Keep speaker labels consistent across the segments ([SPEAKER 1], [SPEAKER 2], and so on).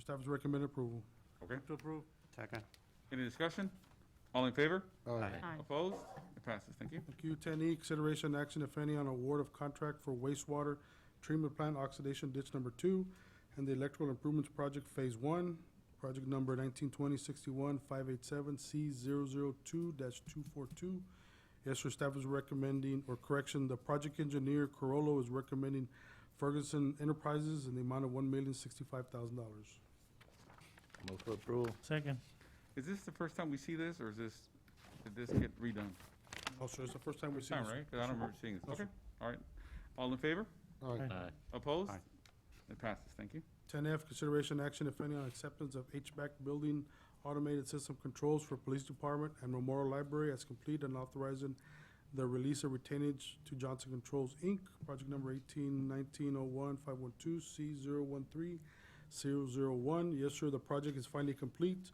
[SPEAKER 1] Staff is recommend approval.
[SPEAKER 2] Okay,
[SPEAKER 3] To approve.
[SPEAKER 4] Second.
[SPEAKER 2] any discussion? All in favor?
[SPEAKER 4] Aye.
[SPEAKER 5] Aye.
[SPEAKER 2] Opposed? It passes, thank you.
[SPEAKER 1] Thank you. Ten E, consideration action, if any, on award of contract for wastewater treatment plant oxidation ditch number two and the electrical improvements project phase one, project number nineteen twenty sixty-one five eight seven C 2 two four two. Yes, sir, staff is recommending, or correction, the project engineer Corolo is recommending Ferguson Enterprises in the amount of one million sixty-five thousand dollars.
[SPEAKER 4] Move for approval.
[SPEAKER 3] Second.
[SPEAKER 2] Is this the first time we see this, or is this, did this get redone?
[SPEAKER 1] Oh, sir, it's the first time we've
[SPEAKER 2] First
[SPEAKER 1] seen
[SPEAKER 2] time,
[SPEAKER 1] this.
[SPEAKER 2] right? 'Cause I don't remember seeing
[SPEAKER 1] No,
[SPEAKER 2] this.
[SPEAKER 1] sir.
[SPEAKER 2] Okay, all right. All in favor?
[SPEAKER 1] Aye.
[SPEAKER 4] Aye.
[SPEAKER 2] Opposed?
[SPEAKER 4] Aye.
[SPEAKER 2] It passes, thank you.
[SPEAKER 1] Ten F, consideration action, if any, on acceptance of HVAC building automated system controls for police department and Memorial Library as complete and authorizing the release of retainage to Johnson Controls, Inc., project number eighteen nineteen oh one five one two C 13001 Yes, sir, the project is finally complete.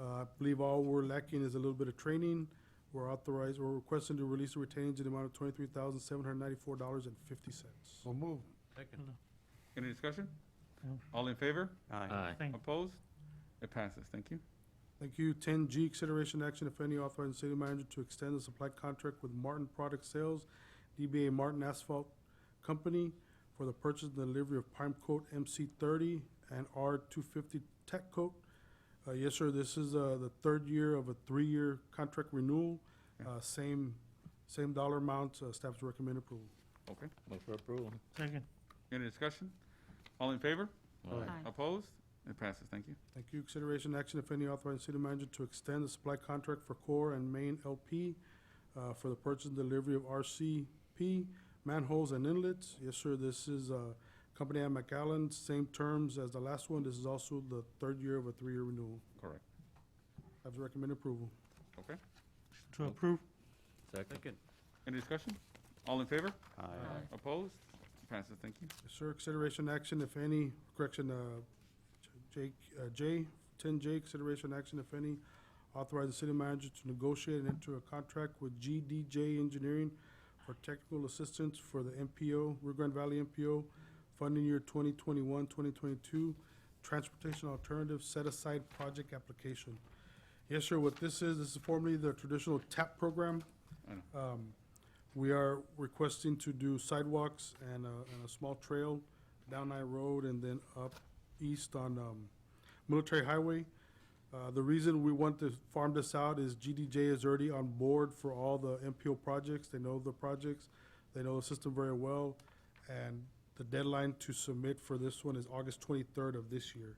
[SPEAKER 1] Uh, I believe all we're lacking is a little bit of training. We're authorized, we're requesting to release the retainage in the amount of twenty-three thousand seven hundred ninety-four dollars and fifty cents.
[SPEAKER 6] So move.
[SPEAKER 2] Any discussion?
[SPEAKER 3] No.
[SPEAKER 2] All in favor?
[SPEAKER 4] Aye.
[SPEAKER 3] Thank-
[SPEAKER 2] Opposed? It passes, thank you.
[SPEAKER 1] Thank you. Ten G, consideration action, if any, authorizing city manager to extend the supply contract with Martin Product Sales, DBA Martin Asphalt Company, for the purchase and delivery of prime coat MC thirty and R two fifty tech coat. Uh, yes, sir, this is, uh, the third year of a three-year contract renewal, uh, same, same dollar amount, uh, staff's recommend approval.
[SPEAKER 2] Okay,
[SPEAKER 4] Move for approval.
[SPEAKER 3] Second.
[SPEAKER 2] any discussion? All in favor?
[SPEAKER 5] Aye.
[SPEAKER 2] Opposed? It passes, thank you.
[SPEAKER 1] Thank you. Consideration action, if any, authorizing city manager to extend the supply contract for Core and Main LP uh, for the purchase and delivery of RCP manholes and inlets. Yes, sir, this is uh, company at McAllen, same terms as the last one. This is also the third year of a three-year renewal.
[SPEAKER 2] Correct.
[SPEAKER 1] I have recommend approval.
[SPEAKER 2] Okay,
[SPEAKER 3] To approve.
[SPEAKER 4] Second.
[SPEAKER 6] Second.
[SPEAKER 2] any discussion? All in favor?
[SPEAKER 4] Aye.
[SPEAKER 2] Opposed? It passes, thank you.
[SPEAKER 1] Yes, sir. Consideration action, if any, correction, uh, J, uh, J, ten J, consideration action, if any, authorize the city manager to negotiate and enter a contract with GDJ Engineering for technical assistance for the MPO, Rio Grande Valley MPO, funding year 2021-2022 transportation alternative set aside project application. Yes, sir, what this is, this is formerly the traditional TAP program.
[SPEAKER 2] I know.
[SPEAKER 1] Um, we are requesting to do sidewalks and a, and a small trail down I Road and then up east on, um, Military Highway. Uh, the reason we want to farm this out is GDJ is already on board for all the MPO projects. They know the projects. They know the system very well. And the deadline to submit for this one is August twenty-third of this year.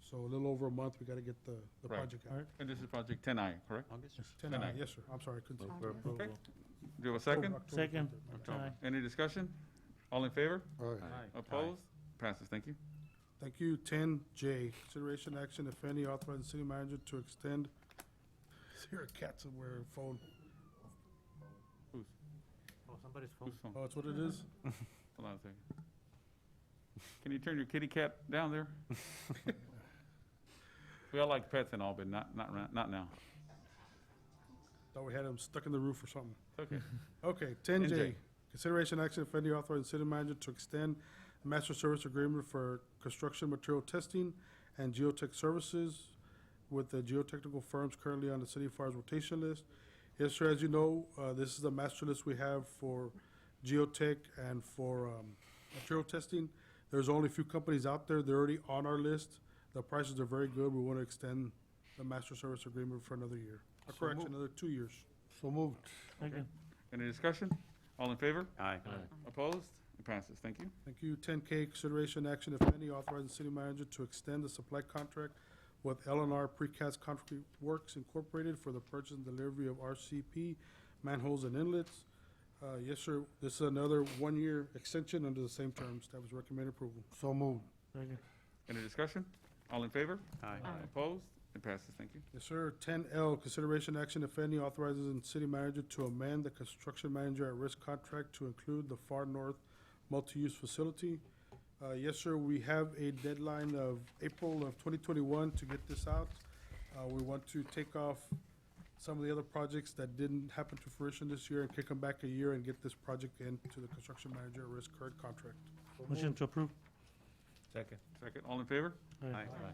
[SPEAKER 1] So a little over a month, we gotta get the, the
[SPEAKER 2] Right.
[SPEAKER 1] project out.
[SPEAKER 3] Alright.
[SPEAKER 2] And this is Project 10I, correct?
[SPEAKER 4] August?
[SPEAKER 1] Ten
[SPEAKER 2] Ten
[SPEAKER 1] aye,
[SPEAKER 2] aye.
[SPEAKER 1] yes, sir. I'm sorry.
[SPEAKER 4] Move
[SPEAKER 1] continue.
[SPEAKER 4] for
[SPEAKER 5] Aye.
[SPEAKER 4] approval.
[SPEAKER 2] Do you have a second?
[SPEAKER 1] October
[SPEAKER 3] Second.
[SPEAKER 1] 23rd, my bad.
[SPEAKER 2] October.
[SPEAKER 3] Aye.
[SPEAKER 2] Any discussion? All in favor?
[SPEAKER 6] Aye.
[SPEAKER 2] Opposed? Passes, thank you.
[SPEAKER 1] Thank you. Ten J, consideration action, if any, authorizing city manager to extend, is there a cat somewhere, phone?
[SPEAKER 2] Who's,
[SPEAKER 4] Oh, somebody's
[SPEAKER 2] who's phone?
[SPEAKER 1] Oh, that's what it is?
[SPEAKER 2] Hold on a second. Can you turn your kitty cat down there? We all like pets and all, but not, not, ra- not now.
[SPEAKER 1] Thought we had him stuck in the roof or something.
[SPEAKER 2] It's Okay.
[SPEAKER 1] Okay, ten
[SPEAKER 2] 10J.
[SPEAKER 1] J, consideration action, if any, authorizing city manager to extend master service agreement for construction material testing and geotech services with the geotechnical firms currently on the city fire's rotation list. Yes, sir, as you know, uh, this is the master list we have for geotech and for, um, material testing. There's only a few companies out there, they're already on our list. The prices are very good, we want to extend the master service agreement for another year. Or
[SPEAKER 6] So
[SPEAKER 1] Correct,
[SPEAKER 6] moved.
[SPEAKER 1] another two years.
[SPEAKER 6] So moved.
[SPEAKER 3] Second.
[SPEAKER 2] Any discussion? All in favor?
[SPEAKER 4] Aye.
[SPEAKER 2] Opposed? It passes, thank you.
[SPEAKER 1] Thank you. Ten K, consideration action, if any, authorizing city manager to extend the supply contract with L and R Precast Concrete Works Incorporated for the purchase and delivery of RCP manholes and inlets. Uh, yes, sir, this is another one-year extension under the same terms. Staff is recommend approval.
[SPEAKER 6] So moved.
[SPEAKER 3] Second.
[SPEAKER 2] Any discussion? All in favor?
[SPEAKER 4] Aye.
[SPEAKER 5] Aye.
[SPEAKER 2] Opposed? It passes, thank you.
[SPEAKER 1] Yes, sir. Ten L, consideration action, if any, authorizing city manager to amend the construction manager at risk contract to include the Far North Multi-Use Facility. Uh, yes, sir, we have a deadline of April of twenty twenty-one to get this out. Uh, we want to take off some of the other projects that didn't happen to fruition this year and kick them back a year and get this project into the construction manager at risk current contract.
[SPEAKER 3] Motion to approve.
[SPEAKER 4] Second.
[SPEAKER 2] Second, all in favor?
[SPEAKER 3] Aye.
[SPEAKER 5] Aye.